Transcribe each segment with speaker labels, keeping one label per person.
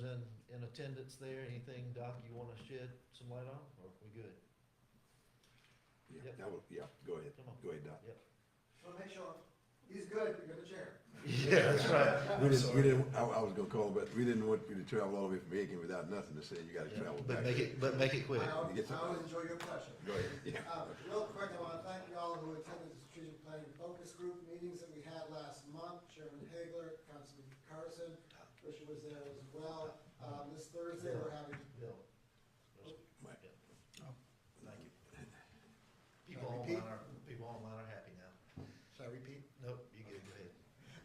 Speaker 1: been in attendance there, anything, Doc, you wanna shed some light on, or we good?
Speaker 2: Yeah,
Speaker 1: Yep.
Speaker 2: that would, yeah, go ahead,
Speaker 1: Come on.
Speaker 2: go ahead, Doc.
Speaker 1: Yep.
Speaker 3: Well, make sure, he's good, you're the chair.
Speaker 1: Yeah, that's right.
Speaker 2: We didn't, we didn't, I, I was gonna call, but we didn't want you to travel all the way from Aiken without nothing to say, you gotta travel back.
Speaker 1: But make it, but make it
Speaker 3: I
Speaker 1: quick.
Speaker 3: al-
Speaker 2: You get
Speaker 3: I
Speaker 2: some-
Speaker 3: always enjoy your question.
Speaker 2: Go ahead, yeah.
Speaker 3: Uh, Real quick, I want to thank you all who attended the strategic planning focus group meetings that we had last month. Chairman Hagler, Councilman Carson, Richard was there as well. Um, This Thursday, we're having,
Speaker 1: Bill.
Speaker 2: Right.
Speaker 1: Yeah.
Speaker 4: Thank you.
Speaker 1: People
Speaker 3: Repeat.
Speaker 1: online are, people online are happy now.
Speaker 3: should I repeat?
Speaker 1: Nope, you good, go ahead.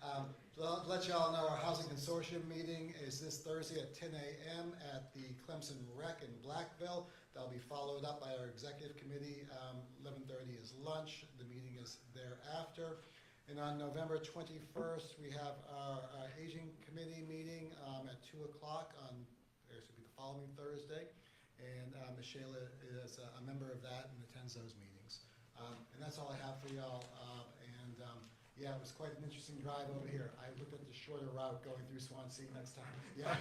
Speaker 3: Um, To let- let you all know, our housing consortium meeting is this Thursday at ten AM at the Clemson Rec in Blackville. That'll be followed up by our executive committee. um, Eleven thirty is lunch, the meeting is thereafter. And on November twenty-first, we have our uh, Aging Committee meeting um, at two o'clock on, or it should be the following Thursday. And uh, Michelle is a a member of that and attends those meetings. Um, And that's all I have for y'all. Uh, And um, yeah, it was quite an interesting drive over here. I looked at the shorter route going through Swansea next time. Yeah.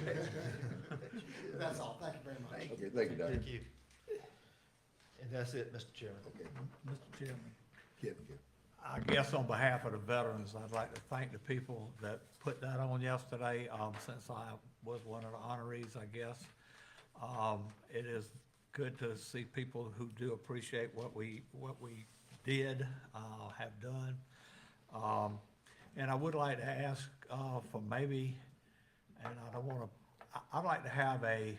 Speaker 3: That's all. Thank you very much.
Speaker 2: Okay, thank you, Doc.
Speaker 1: Thank you. And that's it, Mr. Chairman.
Speaker 2: Okay,
Speaker 4: Mr. Chairman.
Speaker 2: Kevin, Kevin.
Speaker 4: I guess on behalf of the veterans, I'd like to thank the people that put that on yesterday, um, since I was one of the honorees, I guess. Um, it is good to see people who do appreciate what we, what we did, uh, have done. Um, and I would like to ask, uh, for maybe, and I don't wanna, I, I'd like to have a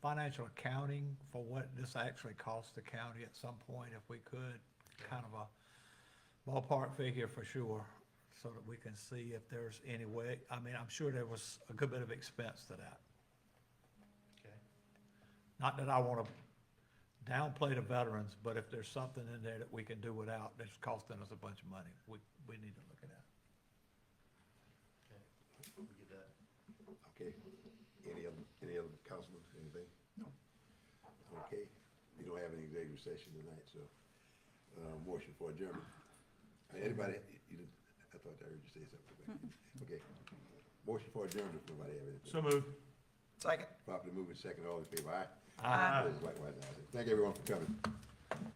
Speaker 4: financial accounting for what this actually cost the county at some point, if we could, kind of a, ballpark figure for sure, so that we can see if there's any way, I mean, I'm sure there was a good bit of expense to that.
Speaker 1: Okay.
Speaker 4: Not that I want to downplay the veterans, but if there's something in there that we can do without, that's costing us a bunch of money, we, we need to look at that.
Speaker 1: Okay. We get that.
Speaker 2: okay. Any other, any other councilman, anything?
Speaker 4: No.
Speaker 2: Okay, we don't have any executive session tonight, so, uh, motion for adjournment. Anybody, you, didn't- I thought I heard you say something. Okay, motion for adjournment, if nobody have anything.
Speaker 4: move.
Speaker 5: Second.
Speaker 2: Properly moving second, all in favor, aye?
Speaker 4: Aye.
Speaker 2: Opposed, Likewise, aye. Thank everyone for coming.